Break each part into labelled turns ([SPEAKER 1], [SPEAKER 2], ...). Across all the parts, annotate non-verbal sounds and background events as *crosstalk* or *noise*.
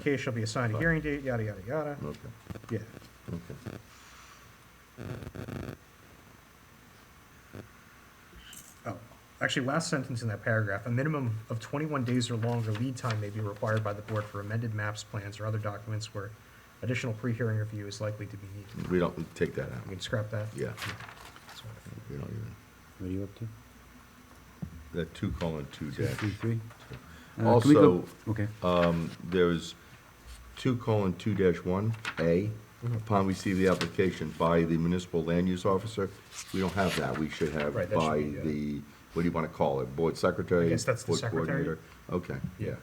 [SPEAKER 1] case shall be assigned a
[SPEAKER 2] Right.
[SPEAKER 1] hearing date, yada, yada, yada,
[SPEAKER 2] Okay,
[SPEAKER 1] yeah.
[SPEAKER 2] okay.
[SPEAKER 1] Oh, actually, last sentence in that paragraph, a minimum of twenty-one days or longer lead time may be required by the board for amended maps, plans, or other documents where additional pre-hearing review is likely to be needed.
[SPEAKER 2] We don't, we take that
[SPEAKER 1] You
[SPEAKER 2] out.
[SPEAKER 1] can scrap that?
[SPEAKER 2] Yeah,
[SPEAKER 1] That's what I think.
[SPEAKER 2] we don't even,
[SPEAKER 3] What are you up to?
[SPEAKER 2] that two colon two
[SPEAKER 3] Two,
[SPEAKER 2] dash.
[SPEAKER 3] three, three?
[SPEAKER 2] two.
[SPEAKER 3] Uh, can we go-
[SPEAKER 2] Also,
[SPEAKER 3] Okay,
[SPEAKER 2] there's two colon two dash one, A,
[SPEAKER 1] Mm-hmm.
[SPEAKER 2] upon receipt of the application by the municipal land use officer, we don't have that, we should have
[SPEAKER 1] Right, that should
[SPEAKER 2] by
[SPEAKER 1] be, uh,
[SPEAKER 2] the, what do you wanna call it, board secretary?
[SPEAKER 1] I guess that's the
[SPEAKER 2] board
[SPEAKER 1] secretary.
[SPEAKER 2] coordinator? Okay, yeah,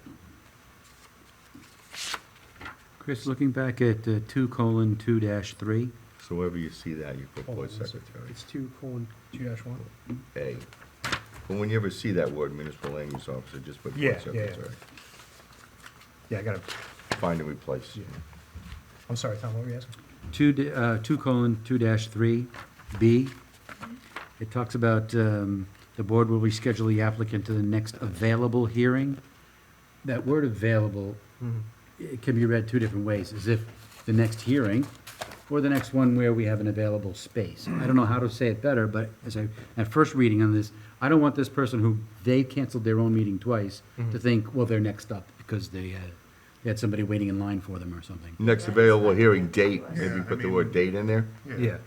[SPEAKER 3] Chris, looking back at uh, two colon two dash three,
[SPEAKER 2] so wherever you see that, you put
[SPEAKER 1] Hold
[SPEAKER 2] board
[SPEAKER 1] on one sec.
[SPEAKER 2] secretary,
[SPEAKER 1] It's two colon, two dash one?
[SPEAKER 2] A. But when you ever see that word municipal land use officer, just put
[SPEAKER 1] Yeah,
[SPEAKER 2] board
[SPEAKER 1] yeah, yeah.
[SPEAKER 2] secretary,
[SPEAKER 1] Yeah, I gotta,
[SPEAKER 2] find and replace.
[SPEAKER 1] Yeah. I'm sorry, Tom, what were you asking?
[SPEAKER 3] two, d- uh, two colon two dash three, B. It talks about, um, the board will reschedule the applicant to the next available hearing. That word available, it can be read two different ways, as if the next hearing or the next one where we have an available space. I don't know how to say it better, but as I, at first reading on this, I don't want this person who, they canceled their own meeting twice to think, well, they're next up because they had, they had somebody waiting in line for them or something.
[SPEAKER 2] Next available hearing date, maybe
[SPEAKER 4] Yeah, I
[SPEAKER 2] put the
[SPEAKER 4] mean-
[SPEAKER 2] word date in there,
[SPEAKER 4] Yeah,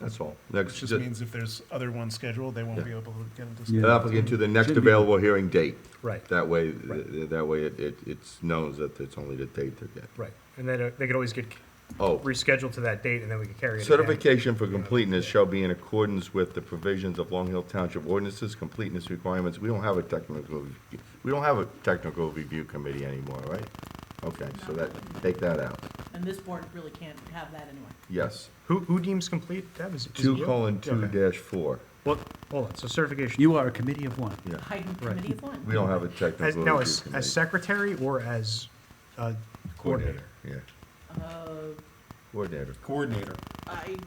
[SPEAKER 2] that's all.
[SPEAKER 4] which
[SPEAKER 2] Next,
[SPEAKER 4] just means if there's other ones scheduled, they won't be able to get into.
[SPEAKER 2] an applicant to the next
[SPEAKER 3] Should be-
[SPEAKER 2] available hearing date.
[SPEAKER 1] Right.
[SPEAKER 2] That way, th- that way it, it, it's known that it's only the date they're getting.
[SPEAKER 1] Right, and then uh, they could always get
[SPEAKER 2] Oh,
[SPEAKER 1] rescheduled to that date, and then we could carry it again.
[SPEAKER 2] certification for completeness shall be in accordance with the provisions of Long Hill Township ordinances, completeness requirements. We don't have a technical, rev- we don't have a technical review committee anymore, right? Okay, so that, take that out.
[SPEAKER 5] And this board really can't have that anyway.
[SPEAKER 2] Yes.
[SPEAKER 1] Who, who deems complete, Deb, is it? is it
[SPEAKER 2] Two
[SPEAKER 1] you?
[SPEAKER 2] colon two
[SPEAKER 1] Okay.
[SPEAKER 2] dash four.
[SPEAKER 1] Well, hold on, so certification,
[SPEAKER 3] You are a committee of one.
[SPEAKER 2] Yeah,
[SPEAKER 5] Hiding
[SPEAKER 1] Right.
[SPEAKER 5] committee of one.
[SPEAKER 2] we don't have a
[SPEAKER 1] as,
[SPEAKER 2] technical
[SPEAKER 1] now,
[SPEAKER 2] review
[SPEAKER 1] as, as
[SPEAKER 2] committee.
[SPEAKER 1] secretary or as, uh, coordinator?
[SPEAKER 2] Yeah,
[SPEAKER 5] Uh,
[SPEAKER 2] coordinator.
[SPEAKER 6] coordinator.
[SPEAKER 5] I,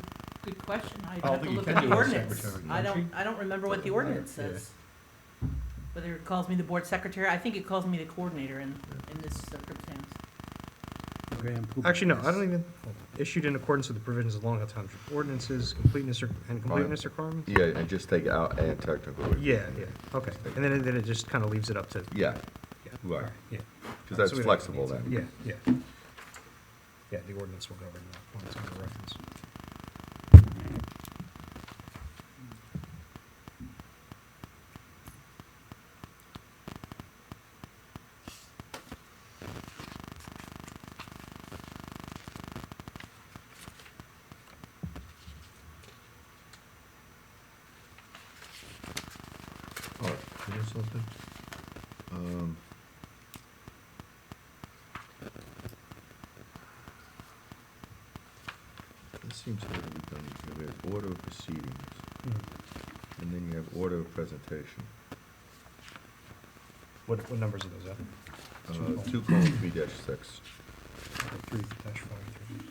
[SPEAKER 5] good question. I'd
[SPEAKER 6] I don't
[SPEAKER 5] have to
[SPEAKER 6] think you
[SPEAKER 5] look
[SPEAKER 6] can
[SPEAKER 5] at
[SPEAKER 6] do
[SPEAKER 5] the
[SPEAKER 6] it as
[SPEAKER 5] ordinance.
[SPEAKER 6] secretary,
[SPEAKER 5] I
[SPEAKER 6] don't
[SPEAKER 5] don't, I don't remember what the ordinance
[SPEAKER 6] matter, yeah.
[SPEAKER 5] says. Whether it calls me the board secretary, I think it calls me the coordinator in, in this circumstance.
[SPEAKER 3] Graham Poop-
[SPEAKER 1] Actually, no, I don't even, hold on. issued in accordance with the provisions of Long Island Township ordinances, completeness or- and completeness requirements?
[SPEAKER 2] Yeah, and just take out and technical review.
[SPEAKER 1] Yeah, yeah, okay, and then, then it just kind of leaves it up to,
[SPEAKER 2] Yeah,
[SPEAKER 1] yeah.
[SPEAKER 2] right,
[SPEAKER 1] Yeah.
[SPEAKER 2] because that's
[SPEAKER 1] So we don't-
[SPEAKER 2] flexible then.
[SPEAKER 1] Yeah, yeah. Yeah, the ordinance will govern that, when it's under reference.
[SPEAKER 2] Oh, you know something? Um, This seems to be done, we have order of proceedings, and then you have order of presentation.
[SPEAKER 1] What, what numbers are those at?
[SPEAKER 2] Uh, Two colon three dash six.
[SPEAKER 1] Three dash forty-three.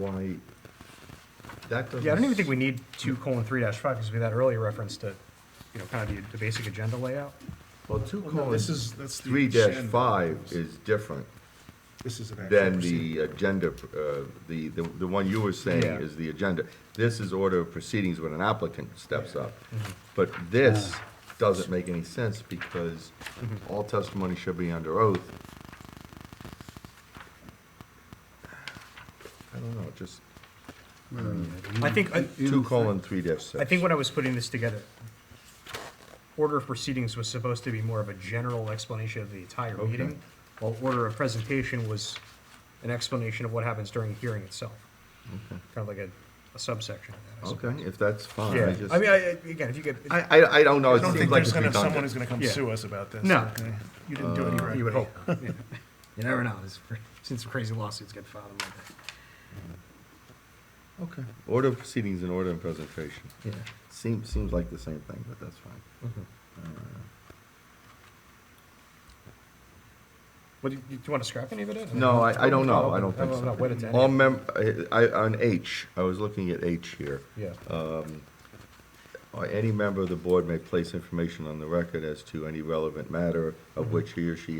[SPEAKER 2] Why, that doesn't.
[SPEAKER 1] Yeah, I don't even think we need two colon three dash five, because we had that earlier reference to, you know, kind of the, the basic agenda layout.
[SPEAKER 2] Well,
[SPEAKER 1] Oh,
[SPEAKER 2] two
[SPEAKER 6] Well, no,
[SPEAKER 2] colon
[SPEAKER 6] this is, that's the.
[SPEAKER 2] three dash
[SPEAKER 6] agenda.
[SPEAKER 2] five is different
[SPEAKER 6] This is an actual
[SPEAKER 2] than
[SPEAKER 6] proceeding.
[SPEAKER 2] the agenda, uh, the, the the one you were saying
[SPEAKER 3] Yeah.
[SPEAKER 2] is the agenda. This is order of proceedings when an applicant steps up.
[SPEAKER 1] Mm-hmm.
[SPEAKER 2] But this doesn't make any sense because all testimony should be under oath. I don't know, just
[SPEAKER 1] I think, I,
[SPEAKER 2] two colon three dash six.
[SPEAKER 1] I think when I was putting this together, order of proceedings was supposed to be more of a general explanation of the entire
[SPEAKER 2] Okay.
[SPEAKER 1] meeting, while order of presentation was an explanation of what happens during the hearing itself. Kind of like a, a subsection of that.
[SPEAKER 2] Okay, if that's fine, I
[SPEAKER 1] I
[SPEAKER 2] just,
[SPEAKER 1] suppose. Yeah, I mean, I, I- again, if you could,
[SPEAKER 2] I, I, I don't know,
[SPEAKER 6] I
[SPEAKER 2] it
[SPEAKER 6] don't
[SPEAKER 2] seems
[SPEAKER 6] think
[SPEAKER 2] like
[SPEAKER 6] there's
[SPEAKER 2] it's
[SPEAKER 6] gonna, someone is
[SPEAKER 2] redundant.
[SPEAKER 6] gonna come
[SPEAKER 1] Yeah.
[SPEAKER 6] sue us about this.
[SPEAKER 1] No.
[SPEAKER 6] okay? You didn't do
[SPEAKER 2] Uh,
[SPEAKER 6] it
[SPEAKER 1] you would
[SPEAKER 6] correctly.
[SPEAKER 1] hope. *laughs* yeah. You never know, there's, since crazy lawsuits get filed and like that.
[SPEAKER 2] Okay. Order of proceedings and order of presentation. Yeah. Seems, seems like the same thing, but that's fine.
[SPEAKER 1] What, do you, do you want to scrap any of it? Oh, in?
[SPEAKER 2] No, I, I don't know, I don't think
[SPEAKER 1] No, no, wait a
[SPEAKER 2] so. Um,
[SPEAKER 1] minute.
[SPEAKER 2] All mem, I, I- on H, I was looking at H here.
[SPEAKER 1] Yeah.
[SPEAKER 2] Uh, Any member of the board may place information on the record as to any relevant matter of which he or she